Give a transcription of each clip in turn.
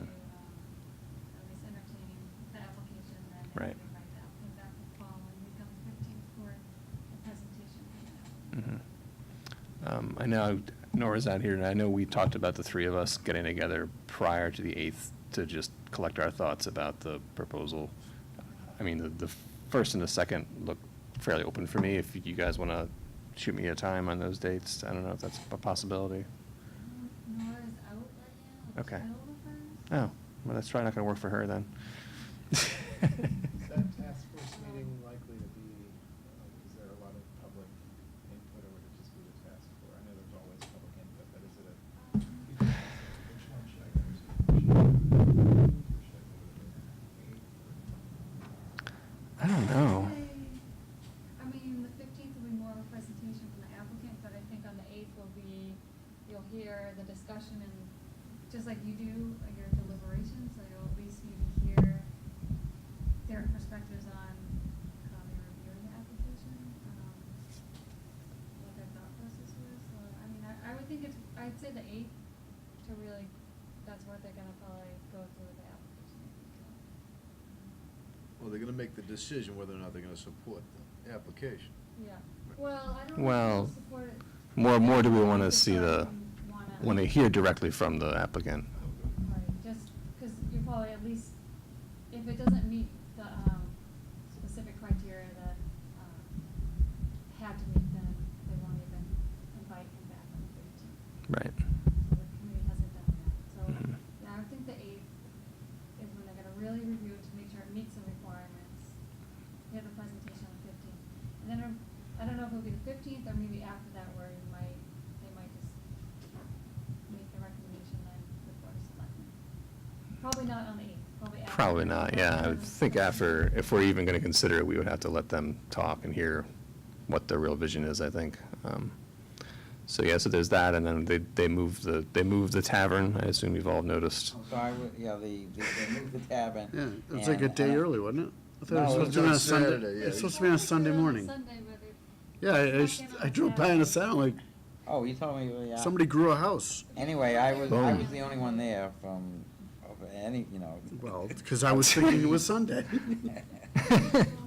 um, Mm-hmm. Um, I know Nora's not here, and I know we talked about the three of us getting together prior to the 8th to just collect our thoughts about the proposal. I mean, the, the first and the second look fairly open for me. If you guys want to shoot me a time on those dates, I don't know if that's a possibility. Nora's out right now. Okay. She's out with us. Oh, well, that's probably not going to work for her then. Is that task force meeting likely to be, uh, is there a lot of public input or would it just be the task force? I know there's always public input, but is it a? Oh. Um, Which one should I go to? Should I go to the eighth or- I don't know. I mean, the fifteenth will be more of a presentation from the applicant, but I think on the eighth will be, you'll hear the discussion and, just like you do, like your deliberations, so you'll at least need to hear their perspectives on how they reviewed the application, um, what their thought process was, so, I mean, I, I would think it's, I'd say the eighth to really, that's what they're gonna probably go through the application. I think, so. Well, they're gonna make the decision whether or not they're gonna support the application. Yeah, well, I don't know Well, if I support it. More, more do we want to see the, Wanna- when they hear directly from the applicant? Right, just, because you probably at least, if it doesn't meet the, um, specific criteria that, um, had to meet, then they won't even invite him back on the thirteenth. Right. So the committee hasn't done that, so, Mhm. yeah, I would think the eighth is when they're gonna really review it to make sure it meets the requirements. You have a presentation on the fifteenth, and then, um, I don't know if it'll be the fifteenth, or maybe after that, where you might, they might just make the recommendation then before the selectmen. Probably not on the eighth, probably after. Probably not, yeah. I would think after, if we're even going to consider it, we would have to let them talk and hear what their real vision is, I think. Um, So, yeah, so there's that, and then they, they moved the, they moved the tavern, I assume you've all noticed. So I would, yeah, the, the- they moved the tavern. Yeah, and- it's uh, like a day and I- uh, early, wasn't it? I thought No, it was it supposed was to be on on a Sunday. Saturday, yeah. It's supposed to be on Sunday morning. Sunday, where they- Yeah, I- I, s- I drove by and it sounded like Oh, you told me, yeah. somebody grew a house. Anyway, I was, I Boom. was the only one there from, of any, you know. Well, because I was thinking it was Sunday.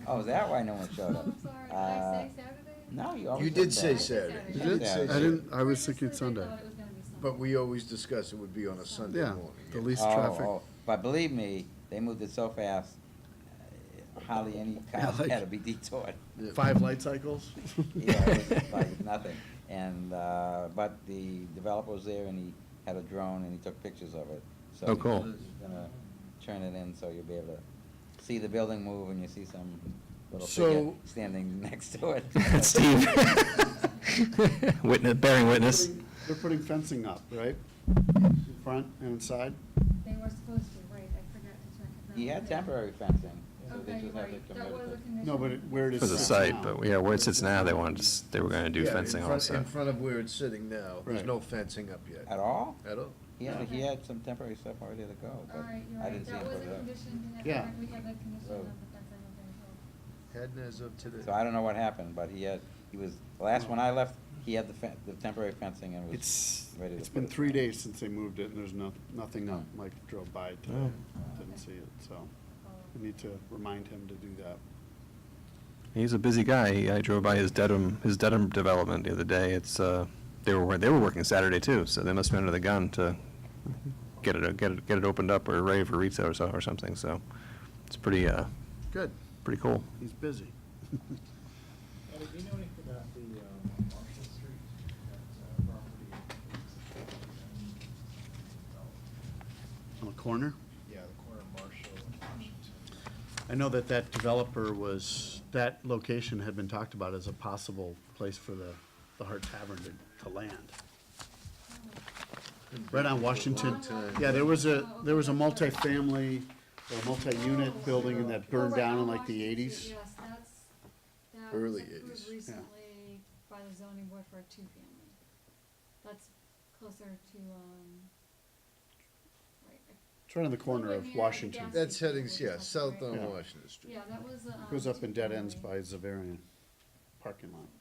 Oh, is that why no one showed up? I'm sorry, did I Uh, say Saturday? No, you always. You did said say that. Saturday. Saturday. You You did? said I didn't, I was Previously, thinking they Sunday. thought it was gonna be Sunday. But we always discuss it would be on a Sunday Yeah, morning. the yeah. least Oh, traffic. oh, But believe me, they moved it so fast, uh, hardly any Yeah, cars like- had to be detoured. Yeah. Five light cycles? Yeah, it was like nothing. And, uh, but the developer was there and he had a drone and he took pictures of it. So Oh, cool. He's gonna turn it in so you'll be able to see the building move and you see some little figure So- standing next to it. Steve. Witness, bearing witness. They're putting fencing up, right? In Front and inside? They were supposed to, right, I forgot to check. if that He had was there. temporary fencing, so they Okay, just had to right, that convert was a it. condition. No, but it- where it is For the sits site, now. but yeah, where it sits now, they wanted, to s- they were going to do Yeah, in fencing front- also. In front of where it's sitting now, there's Right. no fencing up yet, At all? at all. He had, he Yeah. had some temporary stuff already to go, but All right, you're I right, didn't see him Oh. that was put a it up. condition, and Yeah. I forgot we had the condition So- of the fence, I don't think, Hadn't as of today. So I don't know what happened, but he had, he was, the last when I left, he had the fen- the temporary fencing and was It's, ready to it's put been it three down. days since they moved it, and there's no, nothing up. Mike drove by today, didn't see it, so I so. need to remind him to do that. He's a busy guy. He- I drove by his Dedham, his Dedham development the other day. It's, uh, they were, wor- they were working Saturday too, so they must have been under the gun to get it, get it, get it opened up or ready for retail or so, or something, so it's pretty, uh, Good, pretty cool. he's busy. Ellie, do you know anything about the um, Marshall Street, that uh, property? On the corner? Yeah, the corner of Marshall and Washington. I know that that developer was, that location had been talked about as a possible place for the, the Hart Tavern to, to land. Right on Washington. Yeah, there was a, there was a multifamily, or a multi-unit building and that burned Oh, right, down in on like the Washington eighties. Street, Yes, that's, that was Early approved 80s, yeah. recently by the zoning board for a two-family. That's closer to, um, right, It's right on the corner Over of near Washington. the gas- It That's heading, yeah, south on Yeah. Washington Street. yeah, that was, um. Goes up in dead ends two-family. by Zavarian parking lot.